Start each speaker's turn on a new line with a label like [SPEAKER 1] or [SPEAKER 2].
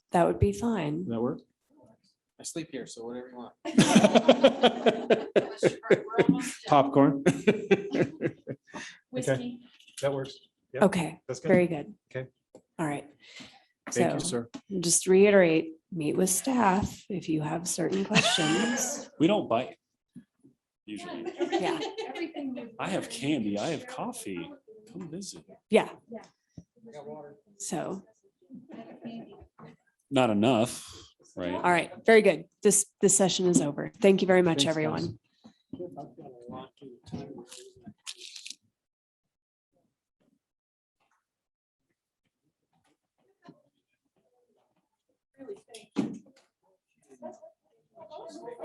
[SPEAKER 1] That would be fine.
[SPEAKER 2] that work?
[SPEAKER 3] I sleep here, so whatever you want.
[SPEAKER 2] Popcorn?
[SPEAKER 4] Whiskey.
[SPEAKER 2] That works. Yep.
[SPEAKER 1] Okay,
[SPEAKER 2] That's
[SPEAKER 1] very good.
[SPEAKER 2] Okay.
[SPEAKER 1] All right.
[SPEAKER 2] Thank you,
[SPEAKER 1] So-
[SPEAKER 2] sir.
[SPEAKER 1] Just reiterate, meet with staff if you have certain questions.
[SPEAKER 5] We don't bite. Usually,
[SPEAKER 4] Yeah.
[SPEAKER 5] I have candy, I have coffee. come visit.
[SPEAKER 1] Yeah,
[SPEAKER 3] I got water.
[SPEAKER 1] so,
[SPEAKER 5] Not enough, right?
[SPEAKER 1] all right, very good. This, this session is over. Thank you very much,
[SPEAKER 2] Thanks, guys.
[SPEAKER 1] everyone.